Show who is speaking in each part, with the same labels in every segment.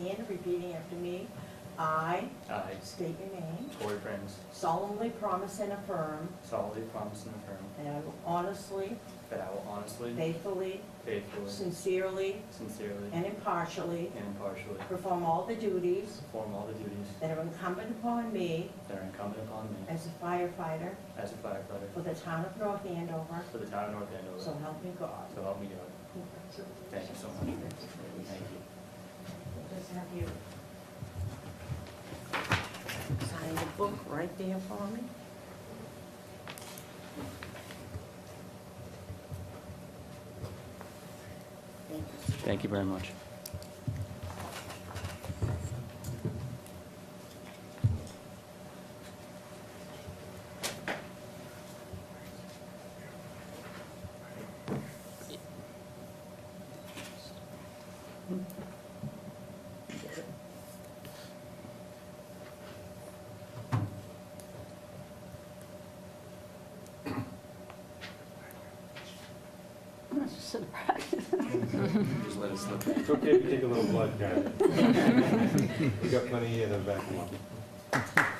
Speaker 1: in, repeating after me. I
Speaker 2: I,
Speaker 1: state your name,
Speaker 2: Tori Prince,
Speaker 1: solemnly promise and affirm
Speaker 2: solemnly promise and affirm
Speaker 1: that I will honestly,
Speaker 2: that I will honestly,
Speaker 1: faithfully,
Speaker 2: faithfully,
Speaker 1: sincerely,
Speaker 2: sincerely,
Speaker 1: and impartially
Speaker 2: and impartially
Speaker 1: perform all the duties
Speaker 2: perform all the duties
Speaker 1: that are incumbent upon me
Speaker 2: that are incumbent upon me
Speaker 1: as a firefighter
Speaker 2: as a
Speaker 1: for
Speaker 2: firefighter
Speaker 1: the town of North Andover,
Speaker 2: for the town of North
Speaker 1: so
Speaker 2: Andover.
Speaker 1: help me God.
Speaker 2: So help me God. Thank you so much. Thank you.
Speaker 3: Just have you sign the book right there for me. Thank you.
Speaker 2: Thank you very much. Just let it slip.
Speaker 4: It's okay if you take a little blood, Karen. We got plenty here to back them up.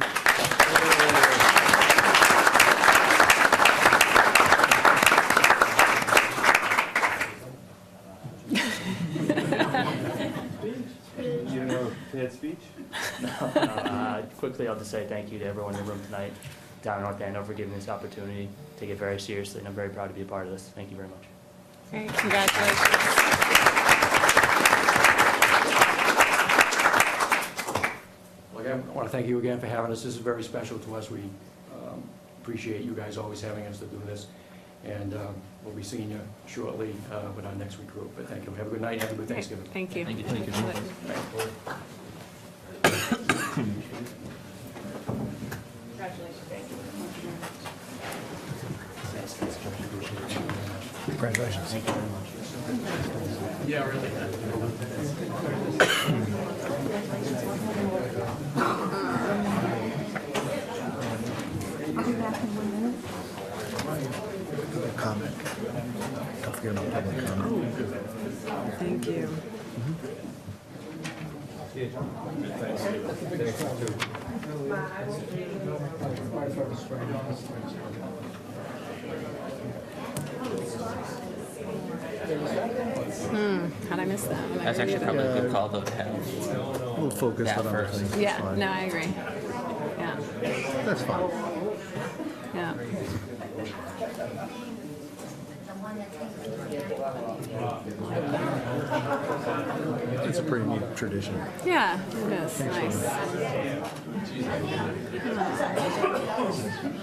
Speaker 4: Speech? You know, had speech?
Speaker 2: Uh, Quickly, I'll just say thank you to everyone in the room tonight, down in North Andover, for giving this opportunity. Take it very seriously, and I'm very proud to be a part of this. Thank you very much.
Speaker 5: Great, congratulations.
Speaker 6: Well, again, I want to thank you again for having us. This is very special to us. We um, appreciate you guys always having us to do this. And um, we'll be seeing you shortly uh, with our next recruit. But thank you. Have a good night. Have a good Thanksgiving.
Speaker 5: Thank you. Thank you, Congratulations.
Speaker 7: comment. Don't forget about public comment.
Speaker 5: Thank you. Hmm, how'd I miss that? one? I
Speaker 8: That's
Speaker 5: really
Speaker 8: actually
Speaker 5: did.
Speaker 8: probably a good call though to have.
Speaker 7: We'll focus
Speaker 8: That
Speaker 7: on other
Speaker 8: first.
Speaker 7: things. That's
Speaker 5: Yeah,
Speaker 7: fine.
Speaker 5: no, I agree. Yeah,
Speaker 7: That's fine.
Speaker 5: yeah.
Speaker 7: It's a pretty neat tradition.
Speaker 5: Yeah, it is, nice.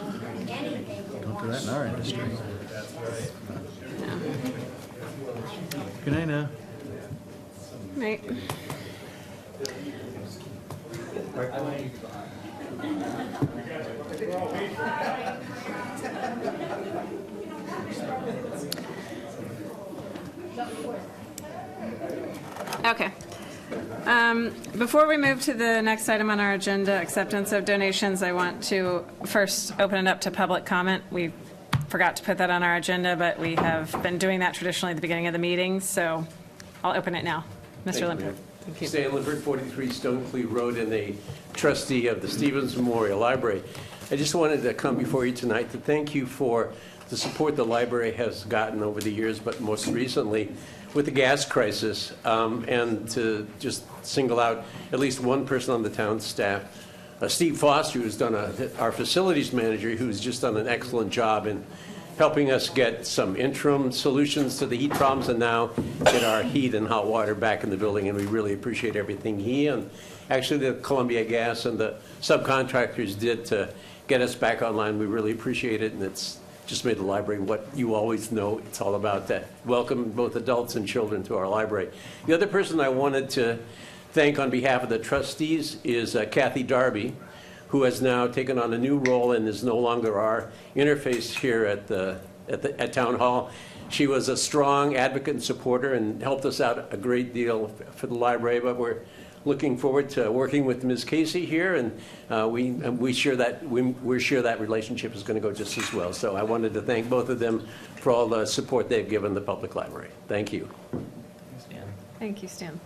Speaker 7: Don't do that in our industry.
Speaker 5: Yeah.
Speaker 7: Good night now.
Speaker 5: Right. Okay. Um, Before we move to the next item on our agenda, acceptance of donations, I want to first open it up to public comment. We forgot to put that on our agenda, but we have been doing that traditionally at the beginning of the meeting, so I'll open it now. Mr. Limpert. Thank you.
Speaker 9: Stan Lippert, 43 Stonecliff Road, and a trustee of the Stevens Memorial Library. I just wanted to come before you tonight to thank you for the support the library has gotten over the years, but most recently with the gas crisis, um, and to just single out at least one person on the town staff uh, Steve Foster, who's done a, our facilities manager, who's just done an excellent job in helping us get some interim solutions to the heat problems and now get our heat and hot water back in the building, and we really appreciate everything he and actually the Columbia Gas and the subcontractors did to get us back online. We really appreciate it, and it's just made the library what you always know it's all about, that welcome both adults and children to our library. The other person I wanted to thank on behalf of the trustees is uh, Kathy Darby, who has now taken on a new role and is no longer our interface here at the, at the, at Town Hall. She was a strong advocate and supporter and helped us out a great deal for the library, but we're looking forward to working with Ms. Casey here, and uh, we, and we share that, we- we're sure that relationship is going to go just as well. So I wanted to thank both of them for all the support they've given the public library. Thank you.
Speaker 8: Stan.
Speaker 5: Thank you, Stan.